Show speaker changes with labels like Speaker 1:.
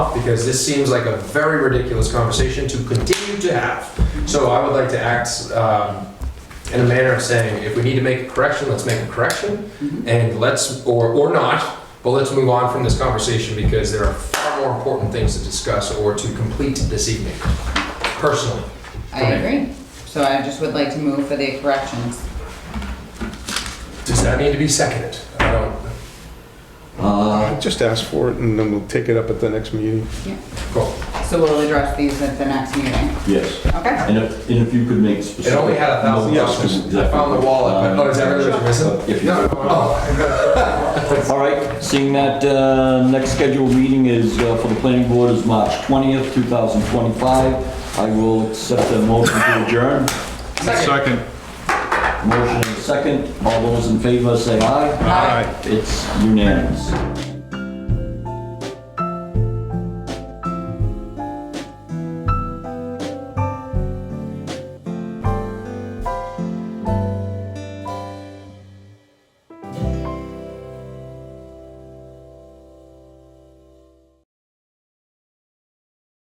Speaker 1: because this seems like a very ridiculous conversation to continue to have. So I would like to act um, in a manner of saying, if we need to make a correction, let's make a correction, and let's, or, or not, but let's move on from this conversation because there are far more important things to discuss or to complete this evening, personally.
Speaker 2: I agree. So I just would like to move for the corrections.
Speaker 1: Does that need to be seconded? I don't,
Speaker 3: Uh,
Speaker 4: Just ask for it and then we'll take it up at the next meeting.
Speaker 1: cool.
Speaker 2: So we'll address these at the next meeting,
Speaker 3: yes,
Speaker 2: okay?
Speaker 3: and if, and if you could make specific.
Speaker 1: It only had a thousand
Speaker 3: notes
Speaker 1: dollars.
Speaker 3: to exactly
Speaker 1: I found the
Speaker 3: what,
Speaker 1: wallet, but,
Speaker 3: um,
Speaker 1: oh, is that really what you're missing?
Speaker 3: If you-
Speaker 1: No, oh,
Speaker 3: All right, seeing that, uh, next scheduled meeting is, uh, for the planning board is March 20th, 2025. I will accept the motion to adjourn.
Speaker 5: Second.
Speaker 3: Motion and second. All those in favor say aye.
Speaker 5: Aye.
Speaker 3: It's unanimous.